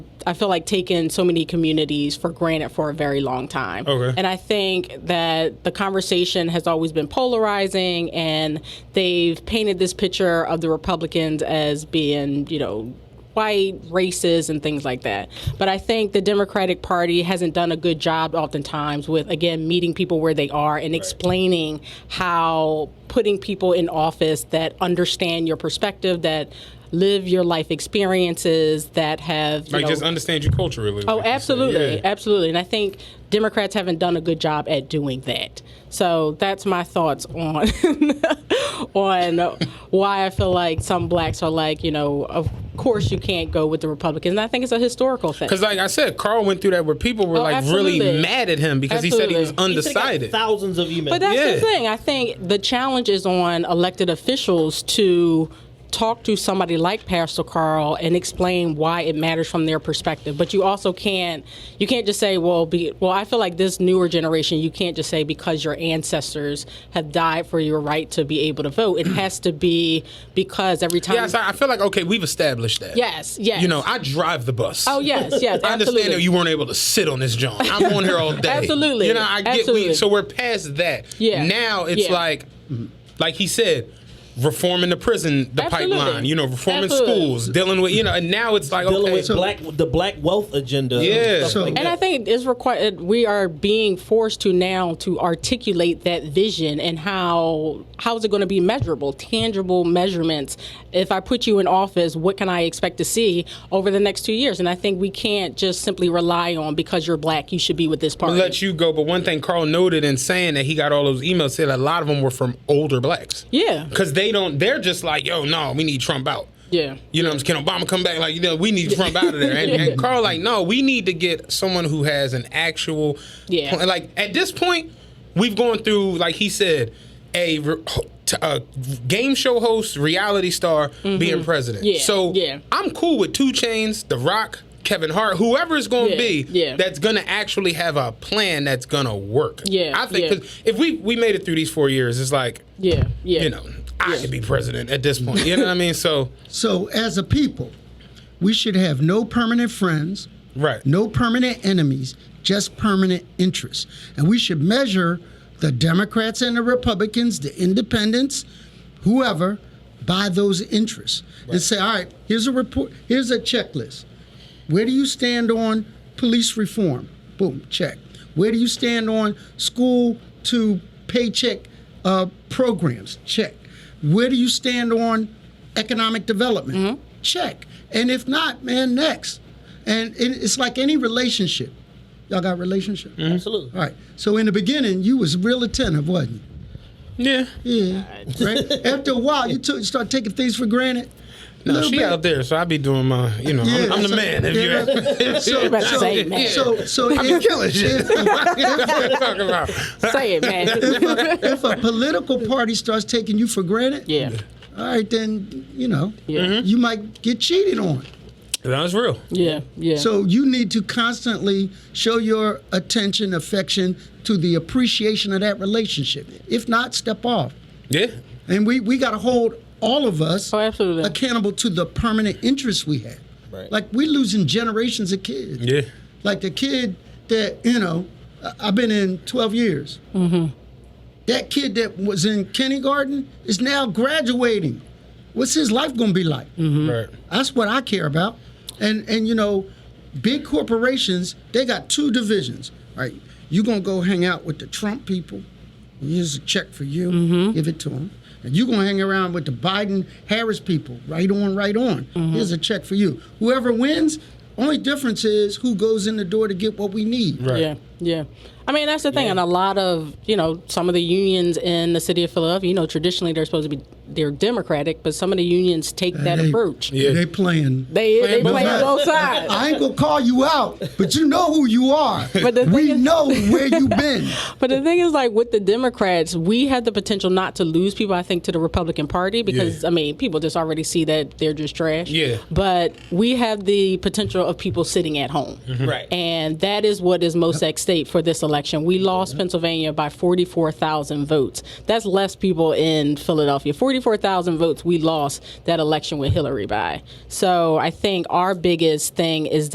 I feel like taken so many communities for granted for a very long time. Okay. And I think that the conversation has always been polarizing, and they've painted this picture of the Republicans as being, you know, white races and things like that. But I think the Democratic Party hasn't done a good job oftentimes with again meeting people where they are and explaining how putting people in office that understand your perspective that live your life experiences that have you Like know, just understand your culture really. Oh, like you said. absolutely, Yeah. absolutely. And I think Democrats haven't done a good job at doing that. So that's my thoughts on on why I feel like some blacks are like, you know, of course you can't go with the Republicans. And I think it's a historical thing. Cause like I said, Carl went through that where people were Oh, like really absolutely. mad at him because he said he was Absolutely. He sent out undecided. Thousands of emails. But that's Yeah. the thing. I think the challenge is on elected officials to talk to somebody like Pastor Carl and explain why it matters from their perspective. But you also can't you can't just say, well, be, well, I feel like this newer generation, you can't just say because your ancestors have died for your right to be able to vote. It has to be because every time. Yeah, so I feel like okay, we've established that. yes. Yes. You know, I drive the bus. Oh yes, yes. I understand absolutely. that you weren't able to sit on this John. I'm on here all day. Absolutely. You know, I get we Absolutely. so we're past that. Yeah. Now it's Yeah. like like he said, reforming the prison, the Absolutely. pipeline, you know, reforming Absolutely. schools, dealing with you know, and now it's like dealing okay. with black the black wealth agenda. Yeah. and, stuff like And I that. think it's required. We are being forced to now to articulate that vision and how how is it going to be measurable, tangible measurements. If I put you in office, what can I expect to see over the next two years? And I think we can't just simply rely on because you're black, you should be with this party. let you go, but one thing Carl noted in saying that he got all those emails said a lot of them were from older blacks. yeah, Because they don't, they're just like, yo, no, we need Trump out. yeah. You know what I'm saying? Can Obama come back? Like, you know, we need Trump out of there. And, and Carl, like, no, we need to get someone who has an actual. Yeah. plan. Like, at this point, we've gone through, like he said, a, re- t- a game show host, reality star being president. Mm-hmm. Yeah, So yeah. I'm cool with Two Chains, The Rock, Kevin Hart, whoever it's going to Yeah, be yeah. that's going to actually have a plan that's going to work. Yeah, I think yeah. 'cause if we, we made it through these four years, it's like, Yeah, yeah. you know, I could be president at this point. You know what I mean? So, So, as a people, we should have no permanent friends, right. no permanent enemies, just permanent interests. And we should measure the Democrats and the Republicans, the independents, whoever, by those interests. And say, all right, here's a report, here's a checklist. Where do you stand on police reform? Boom, check. Where do you stand on school to paycheck uh, programs? Check. Where do you stand on economic development? Mm-hmm. Check. And if not, man, next. And it, it's like any relationship. Y'all got relationship? Mm-hmm. absolutely. All right. So in the beginning, you was real attentive, wasn't Yeah. you? Yeah. Right. After a while, you took start taking things for granted. No, Little she bit. out there, so I be doing my, you know, Yeah, I'm, I'm the so- man. If yeah, you right. So- about to say man. So, so I'm if- killing shit. if- if- Talking about. Say it, man. if, a, if a political party starts taking you for granted, yeah, all right, then you know Mm-hmm. Yeah. Mhm. you might get cheated on. That was real. yeah, yeah. So you need to constantly show your attention, affection to the appreciation of that relationship. If not, step off. Yeah. And we we got to hold all of us Oh, absolutely. accountable to the permanent interests we have. Right. Like we're losing generations of kids. Yeah. Like the kid that you know, I- I've been in 12 years. That kid that was in kindergarten is now graduating. What's his life gonna be like? Right. That's what I care about. And and you know, big corporations, they got two divisions. All right, you're gonna go hang out with the Trump people. Here's a check for you. Mm-hmm. Give it to them. And you're gonna hang around with the Biden Harris people. Right on, right on. Mm-hmm. Here's a check for you. Whoever wins, only difference is who goes in the door to get what we need. Right. Yeah, yeah. I mean, that's the thing. And a lot of, you know, some of the unions in the city of Philadelphia, you know, traditionally they're supposed to be, they're Democratic, but some of the unions take that They- approach. Yeah. They playing. They, they both play on sides. both sides. I ain't gonna call you out, but you know who you are. But the we thing is- know where you've been. But the thing is, like with the Democrats, we have the potential not to lose people, I think, to the Republican Party because, Yeah. I mean, people just already see that they're just trash. Yeah. But we have the potential of people sitting at home. Mm-hmm. Right. And that is what is most at stake for this election. We lost Pennsylvania by 44,000 votes. That's less people in Philadelphia. 44,000 votes we lost that election with Hillary by. So I think our biggest thing is